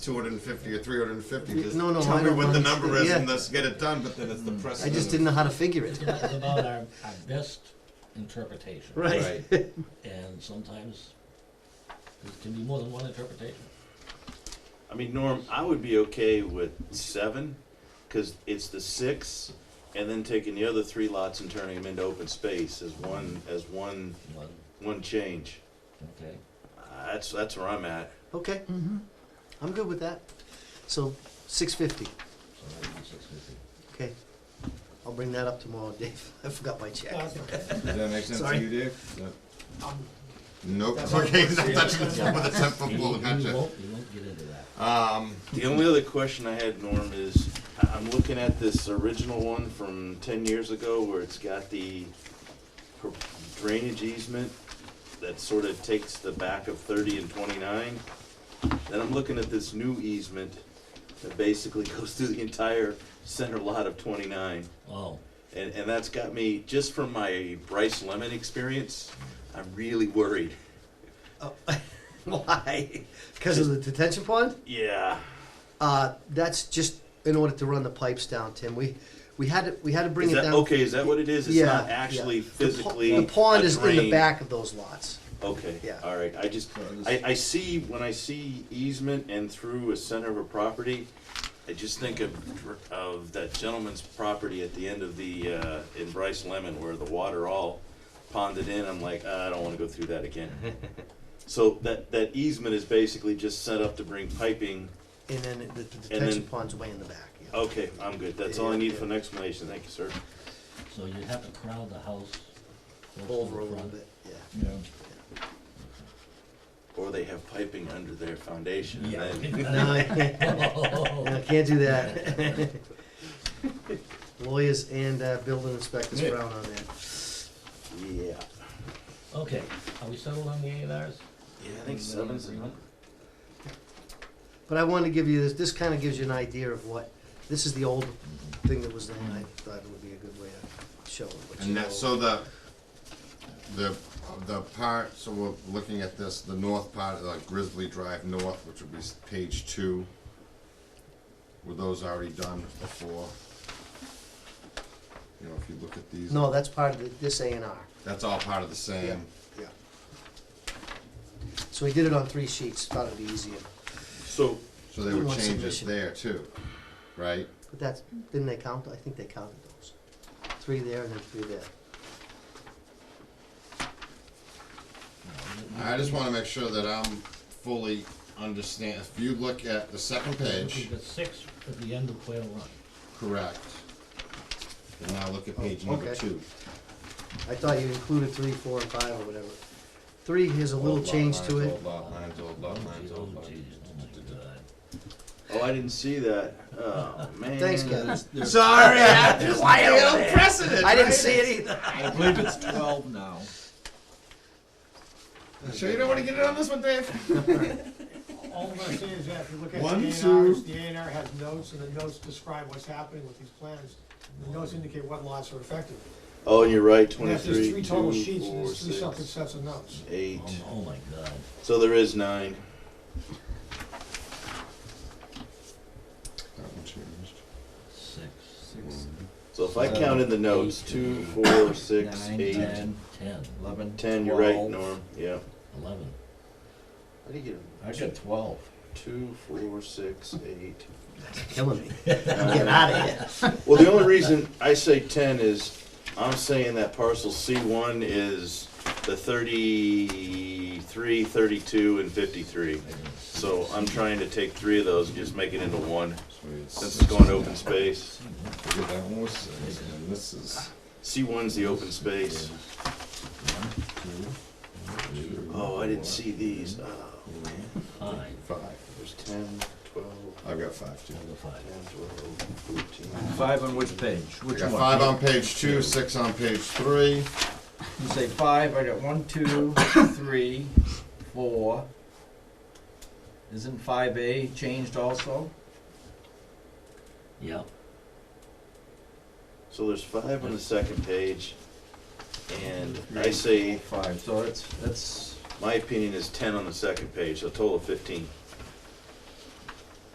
250 or 350. Just No, no, tell I me don't what the understand. number is Yeah. Mm. and let's get it done. But then it's the I precedent. just didn't know how to figure it. It's about our, our best interpretation. Right. And sometimes there can be more than one interpretation. I mean, Norm, I would be okay with seven, because it's the six, and then taking the other three lots and turning them into open space as one, as one, One, one change. okay. Uh, That's, that's where I'm at. Okay. I'm good with that. So, six fifty. So that would be six fifty. Okay. I'll bring that up tomorrow, Dave. I forgot my check. Does that make sense Sorry. to you, Dave? No. Um, Nope. That's okay, what not I'm touching this saying. one with a 10 foot You- pole. you Oh, Gotcha. won't- You won't get into that. Um, The only other question I had, Norm, is I- I'm looking at this original one from ten years ago where it's got the pro- drainage easement that sort of takes the back of thirty and twenty-nine. Then I'm looking at this new easement that basically goes through the entire center lot of twenty-nine. Oh, And, and that's got me, just from my Bryce Lemon experience, I'm really worried. Oh, Why? Because of the detention pond? Yeah, Uh, that's just in order to run the pipes down, Tim. We, we had to, we had to bring is it that, down. okay, is that what it is? It's Yeah, not yeah. actually The po- physically The pond a is in the drain. back of those lots. Okay, Yeah. all right, I just, I, I see, when I see easement and through a center of a property, I just think of, dr- of that gentleman's property at the end of the, uh, in Bryce Lemon where the water all ponded in, I'm like, "Ah, I don't wanna go through that again. So that, that easement is basically just set up to bring piping, And then the, the then- detention pond's way in the back. yeah. okay, I'm good, that's all I need for an explanation, thank you, sir. so you have to crowd the house Oh. close to Over a the little front. bit, yeah. Or they have piping under their foundation, and then- No, Uh, no, can't do that. Lawyers and uh, building inspectors frown on that. yeah. Okay, are we settled on the A and Rs? Yeah, I think seven's the number. But I wanted to give you this, this kind of gives you an idea of what, this is the old thing that was there, and I thought it would be a good way to show it. but Mm-hmm. you and that, know- so the, the, the part, so we're looking at this, the north part, like Grizzly Drive North, which would be s- page two. Were those already done before? You know, if you look at these, No, that's part of the- this A and R, that's all part of the yeah, same. yeah. So we did it on three sheets, thought it'd be easier, So, So they were One changes submission. there too, right? but that's, didn't they count, I think they counted those. Three there and then three there. I just wanna make sure that I'm fully understand, if you look at the second page, We've got six at the end of Quail Run. correct. And now look at page number okay. two. I thought you included three, four, and five, or whatever. Three has a little Old lot change to lines, Old it. lot lines, old lot lines, old Oh, lot geez, lines. oh my God. oh, I didn't see that. Oh, man. Thanks, Kevin. Sorry, I just, I don't precedent. I didn't see it either. I believe it's twelve now. Sure you don't wanna get it on this one, Dave? All I'm gonna say is that if you look at the A One, and two. Rs, the A and R has notes, and the notes describe what's happening with these plans. The notes indicate what lots are affected. Oh, and you're right, And that's there's twenty-three, three total two, sheets, and four, there's three separate six, sets of notes. eight. Oh, oh my God. So there is nine. That one changed. Six, So if I count in the notes, two, four, six, Nine, eight, ten, ten, eleven, ten, you're right, twelve. Norm, yeah. eleven. How do you get I got twelve. Two, four, six, eight. Killing me. nine. Get out of here. Well, the only reason I say ten is, I'm saying that parcel C one is the thirty-three, thirty-two, and fifty-three. So I'm trying to take three of those and just make it into one, since it's going to open space. Yeah, that one was six, and this is C one's the open space. two. Oh, I didn't four, see these. Oh, Five, Five. there's ten, twelve, I've got five too. another five. ten, twelve, fourteen. Five on which page? I Which got one? five on page two, six on page three. You say five, I got one, two, three, four. Isn't five A changed also? Yep, So there's five on the second page, and I say, Five, so it's, that's, my opinion is ten on the second page, so a total of fifteen.